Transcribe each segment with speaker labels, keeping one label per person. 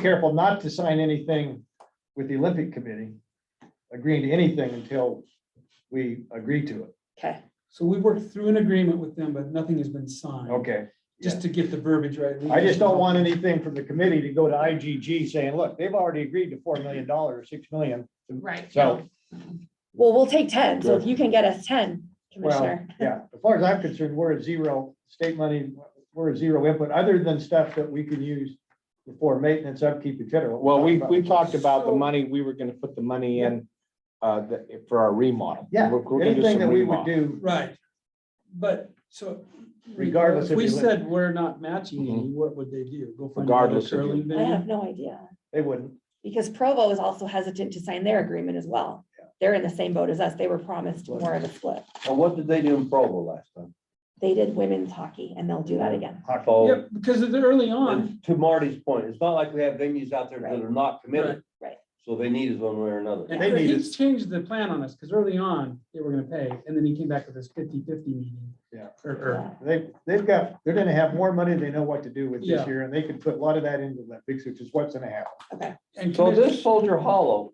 Speaker 1: careful not to sign anything with the Olympic Committee, agreeing to anything until we agree to it.
Speaker 2: Okay,
Speaker 3: So we worked through an agreement with them, but nothing has been signed.
Speaker 1: Okay.
Speaker 3: Just to get the verbiage right. We
Speaker 1: I just don't want anything from the committee to go to IGG saying, look, they've already agreed to four million dollars, six million.
Speaker 4: Right.
Speaker 1: So,
Speaker 2: well, we'll take ten, so if you can get us ten,
Speaker 1: well,
Speaker 2: Commissioner.
Speaker 1: yeah, as far as I'm concerned, we're at zero state money, we're at zero input, other than stuff that we can use for maintenance, upkeep, et cetera.
Speaker 5: Well, we, we talked about the
Speaker 3: So-
Speaker 5: money, we were gonna put the money in, uh, the- for our remodel.
Speaker 1: Yeah,
Speaker 5: We're- we're gonna do
Speaker 1: anything
Speaker 5: some
Speaker 1: that we
Speaker 5: remodel.
Speaker 1: would do,
Speaker 3: Right. But so.
Speaker 1: Regardless if
Speaker 3: If we
Speaker 1: you Mm-hmm. win.
Speaker 3: said we're not matching any,
Speaker 5: Mhm.
Speaker 3: what would they do? Go find another
Speaker 5: Regardless if you
Speaker 3: curling
Speaker 2: I
Speaker 3: venue?
Speaker 2: have no idea,
Speaker 1: they wouldn't.
Speaker 2: because Provo is also hesitant to sign their agreement as well. They're in the same boat as us. They were promised more of a split.
Speaker 6: Well, what did they do in Provo last time?
Speaker 2: They did women's hockey and they'll do that again.
Speaker 6: So,
Speaker 1: Oh.
Speaker 3: Yep, because of the early on,
Speaker 6: and to Marty's point, it's not like we have venues out there that are not committed.
Speaker 2: Right.
Speaker 6: So they need us one way or another.
Speaker 3: and
Speaker 1: They need
Speaker 3: he
Speaker 1: us.
Speaker 3: changed the plan on us, because early on, they were gonna pay, and then he came back with this 50-50 meeting.
Speaker 1: Yeah.
Speaker 3: Or, or,
Speaker 1: They, they've got, they're gonna have more money than they know what to do with this
Speaker 3: Yeah.
Speaker 1: year, and they could put a lot of that into Olympics, which is what's gonna happen.
Speaker 3: and
Speaker 6: So
Speaker 3: commission-
Speaker 6: this Soldier Hollow,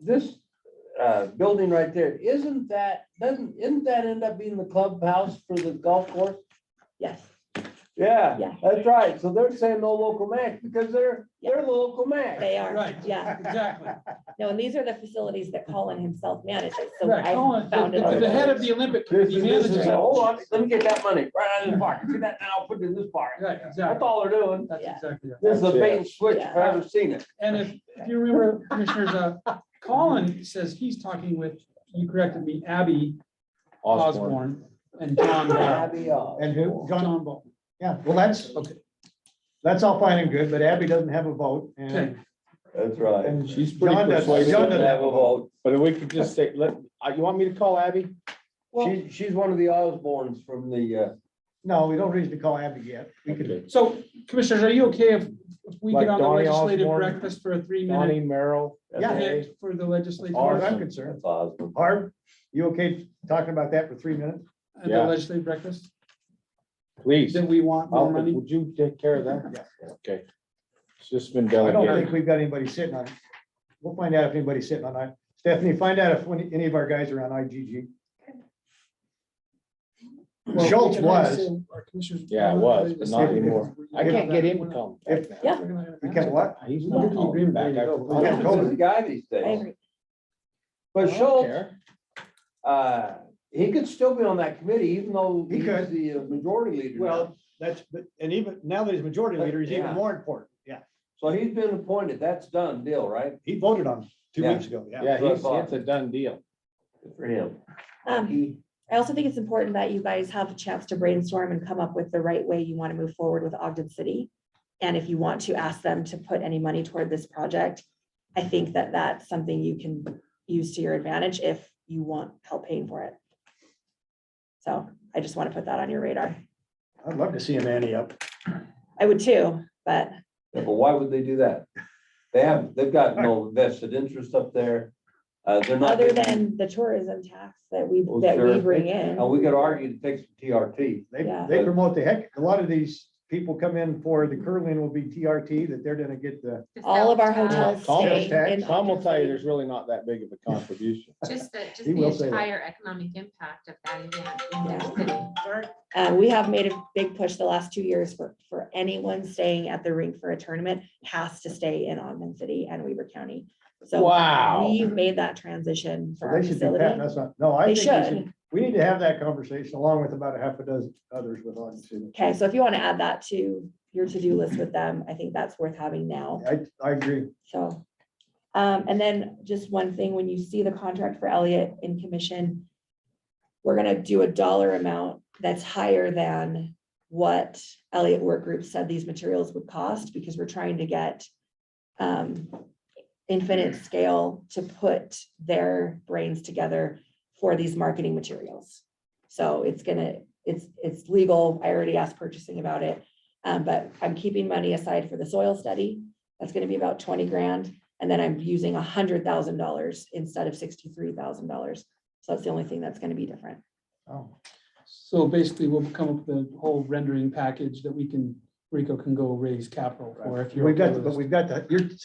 Speaker 6: this uh, building right there, isn't that, doesn't, isn't that end up being the clubhouse for the golf course?
Speaker 2: Yes, Yeah.
Speaker 6: Yeah, that's right. So they're saying no local match because they're, they're the local match.
Speaker 2: they are.
Speaker 3: Right.
Speaker 2: Yeah.
Speaker 3: Exactly.
Speaker 2: No, and these are the facilities that Colin himself manages. So
Speaker 3: Right,
Speaker 2: I
Speaker 3: Colin,
Speaker 2: founded.
Speaker 3: the- the the head of the Olympic committee
Speaker 6: This is,
Speaker 3: manager.
Speaker 6: hold on, let me get that money right out of this pocket. See that now, put it in this pocket.
Speaker 3: Right,
Speaker 6: That's
Speaker 3: exactly.
Speaker 6: all they're doing.
Speaker 3: That's
Speaker 2: Yeah.
Speaker 3: exactly it.
Speaker 6: This is a
Speaker 5: That's it.
Speaker 6: bait and switch if
Speaker 2: Yeah.
Speaker 6: I've ever seen it.
Speaker 3: And if, if you remember, Commissioners, uh, Colin says he's talking with, you corrected me, Abby
Speaker 5: Osborne.
Speaker 3: Osborne and John, Ball.
Speaker 6: Abby, uh,
Speaker 1: And who, John,
Speaker 3: John Ball.
Speaker 1: yeah, well, that's,
Speaker 3: Okay.
Speaker 1: that's all fine and good, but Abby doesn't have a vote, and,
Speaker 3: Okay.
Speaker 6: That's right.
Speaker 1: and
Speaker 5: She's pretty
Speaker 1: John doesn't,
Speaker 5: persuasive.
Speaker 1: John
Speaker 6: Doesn't
Speaker 1: doesn't
Speaker 6: have a vote.
Speaker 5: But if we could just say, let, uh, you want me to call Abby?
Speaker 3: Well,
Speaker 6: She's, she's one of the Osbornes from the, uh,
Speaker 1: No, we don't reason to call Abby yet. We could,
Speaker 3: so Commissioners, are you okay if if we
Speaker 5: Like
Speaker 3: get on the
Speaker 5: Donnie
Speaker 3: legislative
Speaker 5: Osborne,
Speaker 3: breakfast for a three
Speaker 5: Donnie,
Speaker 3: minute
Speaker 5: Merrill.
Speaker 1: Yeah.
Speaker 5: Renee?
Speaker 3: hit for the legislative
Speaker 1: as far as
Speaker 3: and
Speaker 1: I'm
Speaker 5: Awesome.
Speaker 1: concerned.
Speaker 6: that's Osborne.
Speaker 1: Harv, you okay talking about that for three minutes?
Speaker 3: the
Speaker 5: Yeah.
Speaker 3: legislative breakfast?
Speaker 5: Please.
Speaker 3: Then we want
Speaker 5: I'll-
Speaker 3: more money?
Speaker 5: Would you take care of that?
Speaker 1: Yeah.
Speaker 5: Okay. It's just been
Speaker 1: I don't
Speaker 5: delegated.
Speaker 1: think we've got anybody sitting on, it. we'll find out if anybody's sitting on it. Stephanie, find out if any any of our guys are on IGG.
Speaker 3: Well, we
Speaker 1: Schultz
Speaker 3: can have
Speaker 1: was.
Speaker 3: some- our commissioners-
Speaker 5: Yeah, it was, but not
Speaker 1: If- if-
Speaker 5: anymore. I can't get him to come. back now.
Speaker 2: Yeah.
Speaker 1: We kept what?
Speaker 5: He's
Speaker 3: Look at
Speaker 5: not
Speaker 3: the
Speaker 5: calling
Speaker 3: agreement, there
Speaker 5: back.
Speaker 3: you go.
Speaker 5: I- I
Speaker 1: Yeah.
Speaker 5: don't-
Speaker 6: He's the guy these
Speaker 2: I
Speaker 6: days.
Speaker 2: agree.
Speaker 6: But
Speaker 5: I don't
Speaker 6: Schultz,
Speaker 5: care.
Speaker 6: uh, he could still be on that committee even though
Speaker 1: He
Speaker 6: he's
Speaker 1: could.
Speaker 6: the uh, majority leader. now.
Speaker 1: Well, that's, but, and even now that he's majority leader, he's even
Speaker 6: Yeah.
Speaker 1: more important. Uh, Yeah,
Speaker 6: So he's been appointed. That's done deal, right?
Speaker 1: he voted on two
Speaker 6: Yeah.
Speaker 1: weeks ago, yeah.
Speaker 5: Yeah, he's,
Speaker 6: Yeah.
Speaker 5: it's a done deal.
Speaker 6: Good For him.
Speaker 2: Um,
Speaker 6: He-
Speaker 2: I also think it's important that you guys have a chance to brainstorm and come up with the right way you want to move forward with Ogden City. And if you want to ask them to put any money toward this project, I think that that's something you can use to your advantage if you want help paying for it. So I just want to put that on your radar.
Speaker 1: I'd love to see him ante up.
Speaker 2: I would too, but
Speaker 6: Yeah, But why would they do that? They have, they've got no vested interest up there. Uh, they're not.
Speaker 2: other than the tourism tax that we,
Speaker 6: Well,
Speaker 2: that we
Speaker 6: sure.
Speaker 2: bring in.
Speaker 6: And Uh, we could argue to take some TRT.
Speaker 1: They,
Speaker 2: Yeah.
Speaker 1: they promote the heck, a lot of these people come in for the curling will be TRT, that they're gonna get the,
Speaker 2: All of our
Speaker 4: Just
Speaker 2: hotels
Speaker 5: Tom-
Speaker 2: stay in.
Speaker 5: Tom will
Speaker 2: Ogden
Speaker 5: tell you,
Speaker 2: City.
Speaker 5: there's really not that big of a contribution.
Speaker 4: the- Just the, just
Speaker 1: He will say
Speaker 4: the
Speaker 1: that.
Speaker 4: entire economic impact of that event in their city.
Speaker 2: Uh, we have made a big push the last two years for, for anyone staying at the rink for a tournament has to stay in Ogden City and Weaver County. So
Speaker 5: Wow.
Speaker 2: we've made that transition for our
Speaker 1: they should be patting
Speaker 2: facility.
Speaker 1: us on. No, I
Speaker 2: They
Speaker 1: think we
Speaker 2: should.
Speaker 1: should, we need to have that conversation along with about a half a dozen others with on too.
Speaker 2: Okay, so if you want to add that to your to-do list with them, I think that's worth having now,
Speaker 1: I, I agree.
Speaker 2: so. Um, and then just one thing, when you see the contract for Elliott in commission, we're gonna do a dollar amount that's higher than what Elliott Work Group said these materials would cost, because we're trying to get um, infinite scale to put their brains together for these marketing materials. So it's gonna, it's, it's legal. I already asked purchasing about it. Um, but I'm keeping money aside for the soil study. That's gonna be about twenty grand. And then I'm using hundred thousand dollars instead of sixty-three thousand dollars. So that's the only thing that's gonna be different.
Speaker 1: Oh,
Speaker 3: So basically, we'll come up with a whole rendering package that we can Rico can go raise capital for if you're.
Speaker 1: We've got,
Speaker 3: opposed.
Speaker 1: but we've got, the- you're